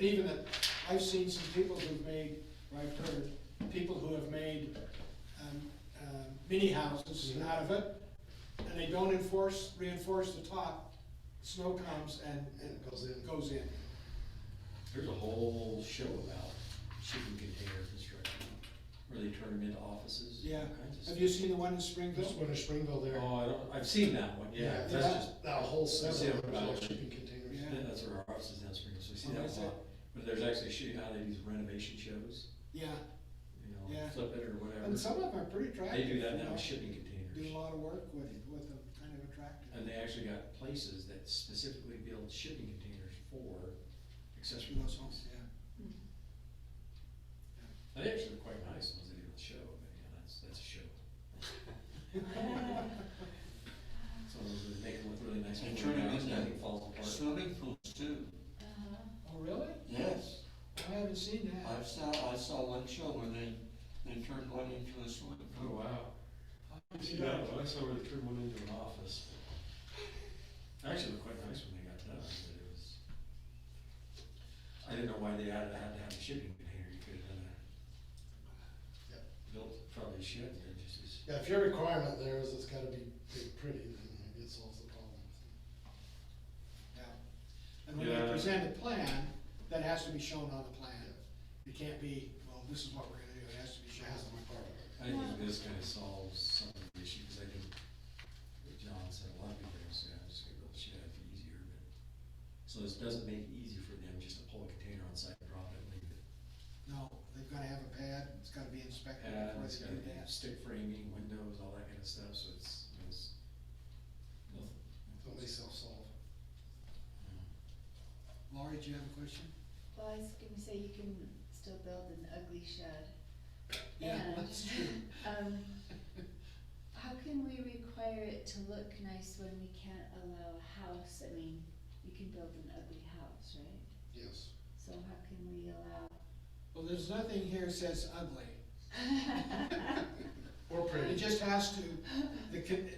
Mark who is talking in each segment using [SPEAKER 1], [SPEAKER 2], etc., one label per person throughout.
[SPEAKER 1] even that, I've seen some people who've made, or I've heard, people who have made, um, uh, mini houses out of it, and they don't enforce, reinforce the top, snow comes and, and
[SPEAKER 2] Goes in.
[SPEAKER 1] Goes in.
[SPEAKER 3] There's a whole show about shipping container construction, where they turn them into offices. and all
[SPEAKER 1] Yeah,
[SPEAKER 3] kinds of
[SPEAKER 1] have you
[SPEAKER 3] stuff.
[SPEAKER 1] seen the one in
[SPEAKER 2] This
[SPEAKER 1] Springville?
[SPEAKER 2] one in Springville there,
[SPEAKER 3] Oh, I don't, I've seen that one, yeah,
[SPEAKER 2] Yeah.
[SPEAKER 3] that's just,
[SPEAKER 2] that whole
[SPEAKER 3] See,
[SPEAKER 2] seven,
[SPEAKER 3] I'm-
[SPEAKER 2] all shipping containers.
[SPEAKER 1] Yeah.
[SPEAKER 3] that's where our office is down Spring, so we see
[SPEAKER 1] Oh,
[SPEAKER 3] that
[SPEAKER 1] is
[SPEAKER 3] a lot. But there's actually shooting how they do renovation shows,
[SPEAKER 1] Yeah,
[SPEAKER 3] you know,
[SPEAKER 1] Yeah.
[SPEAKER 3] flip it or whatever.
[SPEAKER 1] and some of them are pretty attractive.
[SPEAKER 3] They do that
[SPEAKER 1] you
[SPEAKER 3] now
[SPEAKER 1] know.
[SPEAKER 3] with shipping
[SPEAKER 1] Do a
[SPEAKER 3] containers,
[SPEAKER 1] lot of work with, with them, kind of attractive.
[SPEAKER 3] and they actually got places that specifically build shipping containers for accessory
[SPEAKER 1] those
[SPEAKER 3] homes.
[SPEAKER 1] homes, yeah.
[SPEAKER 3] They actually are quite nice, the ones they do with show, but yeah, that's, that's a show. So they make them look really nice.
[SPEAKER 4] They
[SPEAKER 3] when
[SPEAKER 4] turn
[SPEAKER 3] they're
[SPEAKER 4] them
[SPEAKER 3] out,
[SPEAKER 4] into
[SPEAKER 3] nothing falls apart.
[SPEAKER 4] Swimming pools too,
[SPEAKER 1] Oh, really?
[SPEAKER 4] yes.
[SPEAKER 1] I haven't seen that.
[SPEAKER 4] I saw, I saw one show where they, they turned one into a swimming
[SPEAKER 3] Oh,
[SPEAKER 4] pool.
[SPEAKER 3] wow. I see that, one. I saw where they turned one into an office. Actually, looked quite nice when they got done, but it was, I didn't know why they had, had to have a shipping container, you could have done
[SPEAKER 2] Yeah.
[SPEAKER 3] a, built probably a ship, and just, just
[SPEAKER 2] Yeah, if your requirement there is it's gotta be big, pretty, then maybe it solves the problem.
[SPEAKER 1] Yeah. And when they
[SPEAKER 3] Yeah.
[SPEAKER 1] present a plan, that has to be shown on the plan. It can't be, well, this is what we're gonna do, it has to be
[SPEAKER 2] It
[SPEAKER 1] shown.
[SPEAKER 2] has to be part of it.
[SPEAKER 3] I think this kind of solves some of the issue, because I think what John said, a lot of people are gonna say, I'm just gonna build a shed, it'd be easier, but. So this doesn't make it easy for them just to pull a container on site, drop it, leave it.
[SPEAKER 1] No, they've gotta have a pad, it's gotta be inspected
[SPEAKER 3] Pad,
[SPEAKER 1] before
[SPEAKER 3] it's
[SPEAKER 1] they
[SPEAKER 3] gotta
[SPEAKER 1] do
[SPEAKER 3] be
[SPEAKER 1] that.
[SPEAKER 3] stick framing, windows, all that kind of stuff, so it's, it's. well,
[SPEAKER 2] Don't they self-solve?
[SPEAKER 1] Laurie, do you have a question?
[SPEAKER 5] Well, I was gonna say you can still build an ugly shed.
[SPEAKER 1] Yeah,
[SPEAKER 5] And,
[SPEAKER 1] that's true.
[SPEAKER 5] Um, how can we require it to look nice when we can't allow a house, I mean, you can build an ugly house, right?
[SPEAKER 2] Yes.
[SPEAKER 5] So how can we allow?
[SPEAKER 1] Well, there's nothing here says ugly.
[SPEAKER 2] Or
[SPEAKER 1] It
[SPEAKER 2] pretty.
[SPEAKER 1] just has to, the, con-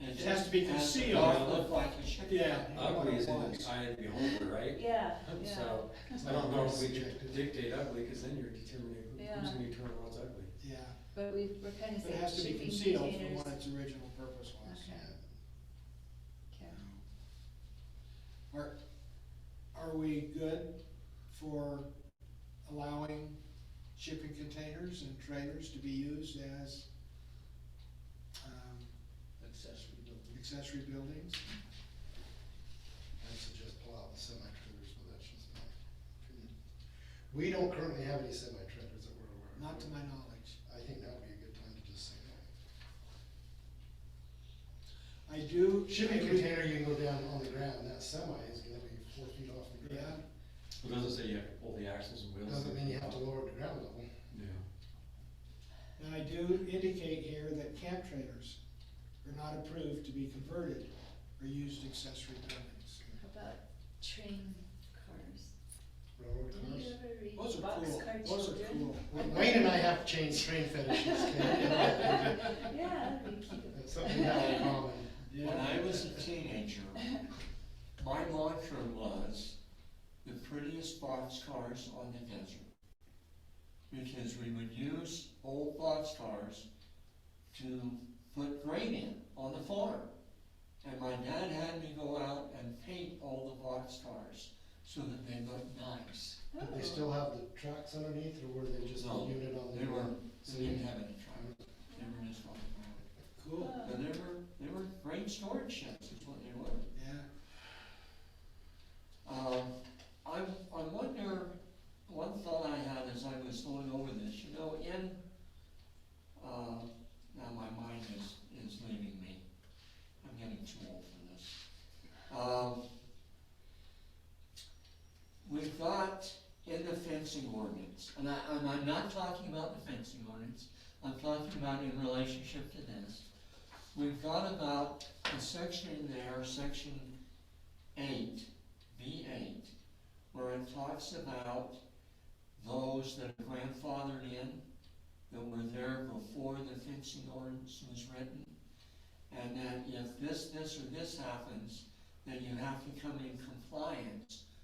[SPEAKER 4] It
[SPEAKER 1] has to be
[SPEAKER 4] It
[SPEAKER 1] concealed.
[SPEAKER 4] has to look like a shipping.
[SPEAKER 1] Yeah.
[SPEAKER 3] Ugly is in the eye of the beholder, right?
[SPEAKER 5] Yeah, yeah.
[SPEAKER 3] So, I don't know if we could dictate ugly, because then you're determining who- who's
[SPEAKER 5] Yeah.
[SPEAKER 3] gonna determine what's ugly.
[SPEAKER 1] yeah,
[SPEAKER 5] But we, we're kind of
[SPEAKER 1] but it
[SPEAKER 5] saying
[SPEAKER 1] has to be
[SPEAKER 5] shipping
[SPEAKER 1] concealed from
[SPEAKER 5] containers.
[SPEAKER 1] what its original purpose was.
[SPEAKER 5] Okay. Okay.
[SPEAKER 1] Are, are we good for allowing shipping containers and trailers to be used as, um,
[SPEAKER 2] Accessory building.
[SPEAKER 1] accessory buildings?
[SPEAKER 2] I'd suggest pull out the semi-trailers, but that's just my opinion. We don't currently have any semi-trailers that we're aware of.
[SPEAKER 1] Not to my knowledge.
[SPEAKER 2] I think that would be a good time to just say no.
[SPEAKER 1] I do.
[SPEAKER 2] Shipping container, you can go down on the ground, that semi is gonna be four feet off the
[SPEAKER 1] Yeah,
[SPEAKER 2] ground.
[SPEAKER 3] It doesn't say you have to pull the axles and wheels.
[SPEAKER 2] Doesn't mean you have to lower it to ground level.
[SPEAKER 3] No.
[SPEAKER 1] and I do indicate here that camp trailers are not approved to be converted or used accessory buildings.
[SPEAKER 5] How about train cars?
[SPEAKER 2] Railroad
[SPEAKER 5] Did you
[SPEAKER 2] cars.
[SPEAKER 5] ever read
[SPEAKER 1] Those are
[SPEAKER 5] Boxcar
[SPEAKER 1] cool,
[SPEAKER 5] Children?
[SPEAKER 1] those are cool.
[SPEAKER 2] Wayne and I have chain train fetishes, okay?
[SPEAKER 5] Yeah, that'd be cute.
[SPEAKER 2] That's something we have in common.
[SPEAKER 4] When
[SPEAKER 1] Yeah,
[SPEAKER 4] I was a teenager, my mantra was, the prettiest boxcars on the desert. Because we would use old boxcars to put grain in on the farm. And my dad had me go out and paint all the boxcars so that they looked nice.
[SPEAKER 2] Did
[SPEAKER 5] Oh.
[SPEAKER 2] they still have the tracks underneath, or were they just a
[SPEAKER 4] No,
[SPEAKER 2] unit on the
[SPEAKER 4] They were,
[SPEAKER 2] ground?
[SPEAKER 4] they didn't have any truck, they were just on the ground.
[SPEAKER 1] cool,
[SPEAKER 5] Oh.
[SPEAKER 4] But they were, they were grain storage sheds is what they were.
[SPEAKER 1] yeah.
[SPEAKER 4] Um, I, I wonder, one thought I had as I was going over this, you know, in, uh, now my mind is, is leaving me. I'm getting too old for this. Um, we've got in the fencing ordinance, and I, and I'm not talking about the fencing ordinance, I'm talking about in relationship to this. We've got about a section in there, section eight, B eight, where it talks about those that are grandfathered in, that were there before the fencing ordinance was written. And that if this, this, or this happens, then you have to come in compliance